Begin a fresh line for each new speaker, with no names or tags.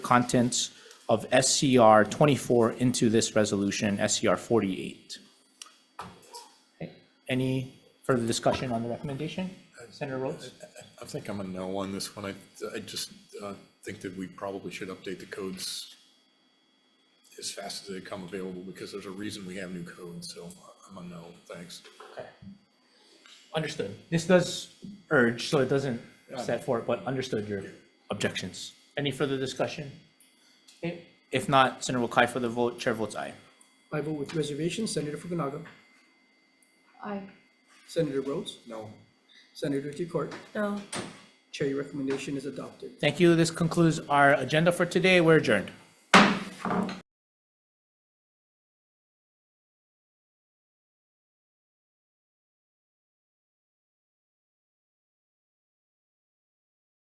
contents of SCR 24 into this resolution, SCR 48. Okay. Any further discussion on the recommendation? Senator Rhodes?
I think I'm a no on this one. I, I just uh, think that we probably should update the codes as fast as they come available, because there's a reason we have new codes, so I'm a no, thanks.
Understood. This does urge, so it doesn't set for it, but understood your objections. Any further discussion? Okay. If not, Senator Wokai for the vote, chair votes aye.
I vote with reservations. Senator Fukunaga.
Aye.
Senator Rhodes.
No.
Senator Decort.
No.
Chair, your recommendation is adopted.
Thank you. This concludes our agenda for today. We're adjourned.